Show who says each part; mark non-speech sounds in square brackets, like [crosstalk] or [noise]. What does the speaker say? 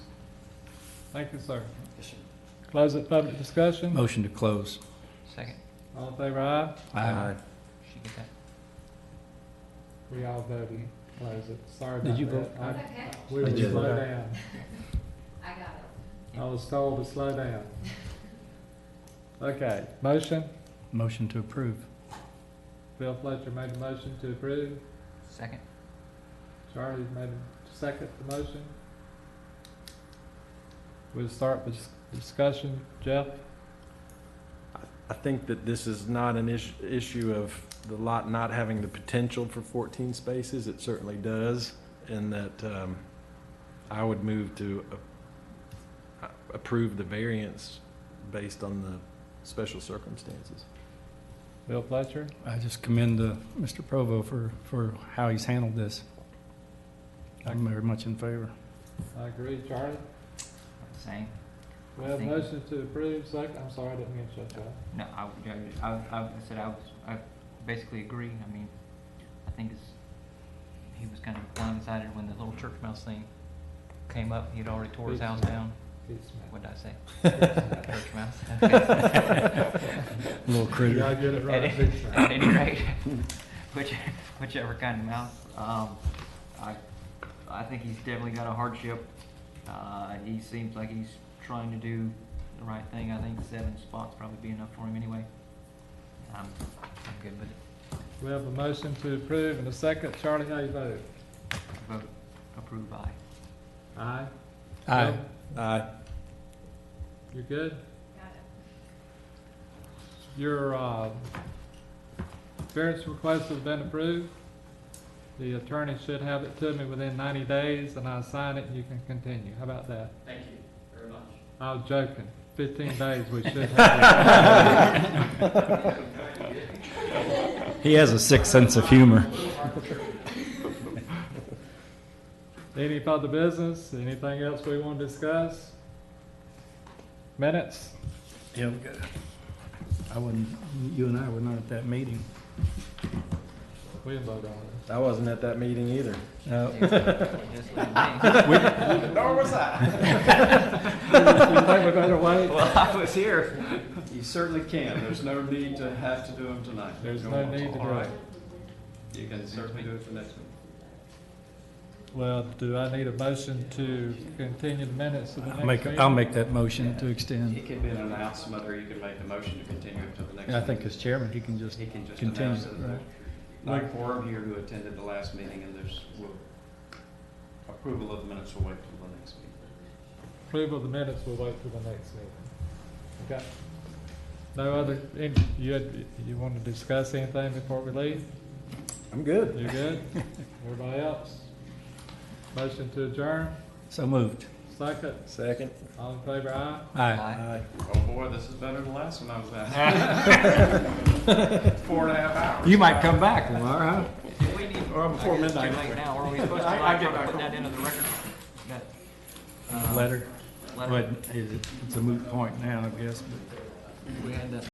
Speaker 1: Thank you, sir.
Speaker 2: Yes, sir.
Speaker 1: Close the public discussion.
Speaker 3: Motion to close.
Speaker 4: Second,
Speaker 1: All in favor, aye?
Speaker 3: Aye.
Speaker 4: she get that.
Speaker 1: We all voted, close it. Sorry
Speaker 3: Did
Speaker 1: about
Speaker 3: you
Speaker 1: that.
Speaker 3: vote?
Speaker 1: I-
Speaker 5: Okay,
Speaker 1: We were
Speaker 3: Did you
Speaker 1: slow
Speaker 3: vote?
Speaker 1: down.
Speaker 5: I got it.
Speaker 1: I was told to slow down. Okay, motion?
Speaker 3: Motion to approve.
Speaker 1: Bill Fletcher made a motion to approve.
Speaker 4: Second,
Speaker 1: Charlie made a second the motion. We'll start with discussion. Jeff?
Speaker 2: I think that this is not an is- issue of the lot not having the potential for 14 spaces. It certainly does, and that um, I would move to uh, approve the variance based on the special circumstances.
Speaker 1: Bill Fletcher?
Speaker 3: I just commend uh, Mr. Provo for, for how he's handled this. I'm very much in favor.
Speaker 1: I agree. Charlie?
Speaker 4: same.
Speaker 1: We have a
Speaker 4: Thank you.
Speaker 1: motion to approve, second, I'm sorry, I didn't mean to shut you off.
Speaker 4: No, I, would- I, I, I said I was, I basically agree. I mean, I think it's, he was kind of blindsided when the little church mouse thing came up. He'd already tore his house down.
Speaker 1: Peace, man.
Speaker 4: What did I say? Church mouse? [laughs] Okay.
Speaker 1: [laughs]
Speaker 3: Little
Speaker 1: You
Speaker 3: critter.
Speaker 1: gotta get it
Speaker 4: At
Speaker 1: right this time.
Speaker 4: at any rate, [laughs] which, whichever kind of mouse, um, I, I think he's definitely got a hardship. Uh, he seems like he's trying to do the right thing. I think seven spots probably be enough for him anyway. I'm, I'm good with it.
Speaker 1: We have a motion to approve and a second, Charlie, how you vote?
Speaker 4: Vote approved by.
Speaker 1: Aye?
Speaker 3: Aye.
Speaker 1: Bill,
Speaker 2: Aye.
Speaker 1: You good?
Speaker 5: Got it.
Speaker 1: Your, uh, variance request has been approved. The attorney should have it to me within ninety days, and I sign it, and you can continue, how about that?
Speaker 6: Thank you very much.
Speaker 1: I was joking, fifteen days, we should have
Speaker 3: [laughs]
Speaker 1: it.
Speaker 3: He has a sick sense of humor.
Speaker 1: Any further business, anything else we wanna discuss? Minutes?
Speaker 3: Yeah, we got it. I wouldn't, you and I were not at that meeting.
Speaker 1: We can vote on it.
Speaker 2: I wasn't at that meeting either.
Speaker 3: Uh,
Speaker 4: [laughs] Just like me.
Speaker 2: Nor was I.
Speaker 1: [laughs]
Speaker 6: Well, I was here. You certainly can. There's no need to have to do them tonight.
Speaker 1: There's no
Speaker 6: more.
Speaker 1: need to
Speaker 6: All
Speaker 1: do
Speaker 6: right.
Speaker 1: it.
Speaker 6: You can certainly do it for next week.
Speaker 1: Well, do I need a motion to continue the minutes of the
Speaker 3: I'll
Speaker 1: next
Speaker 3: make,
Speaker 1: meeting?
Speaker 3: I'll make that motion to extend.
Speaker 6: It can be an announcement, or you can make the motion to continue it to the next.
Speaker 3: I think
Speaker 6: meeting.
Speaker 3: as chairman, he can just,
Speaker 6: He can just
Speaker 3: continue
Speaker 6: announce
Speaker 3: it,
Speaker 6: it.
Speaker 3: right.
Speaker 6: Not a quorum here who attended the last meeting, and there's, will- approval of the minutes will wait till the next meeting.
Speaker 1: Approval of the minutes, we'll wait for the next meeting. Okay. No other, any- you, had- you want to discuss anything before we leave?
Speaker 2: I'm good.
Speaker 1: You good?
Speaker 3: [laughs]
Speaker 1: Everybody else? Motion to adjourn,
Speaker 3: so moved.
Speaker 1: second,
Speaker 2: Second.
Speaker 1: all in favor, aye?
Speaker 3: Aye.
Speaker 2: Aye.
Speaker 6: Oh, boy, this is better than the last one I was at. Four and a half hours.
Speaker 3: You might come back, Lamar, huh?
Speaker 4: We need,
Speaker 2: Or
Speaker 4: I guess
Speaker 2: before
Speaker 4: it's too
Speaker 2: midnight.
Speaker 4: late now. Are we supposed to
Speaker 6: Um, I- I
Speaker 4: like,
Speaker 6: get
Speaker 4: try to
Speaker 6: back
Speaker 4: put that
Speaker 6: home.
Speaker 4: into the record? That, uh,
Speaker 3: Letter.
Speaker 4: letter?
Speaker 3: But is it- it's a moot point now, I guess, but.
Speaker 4: We had that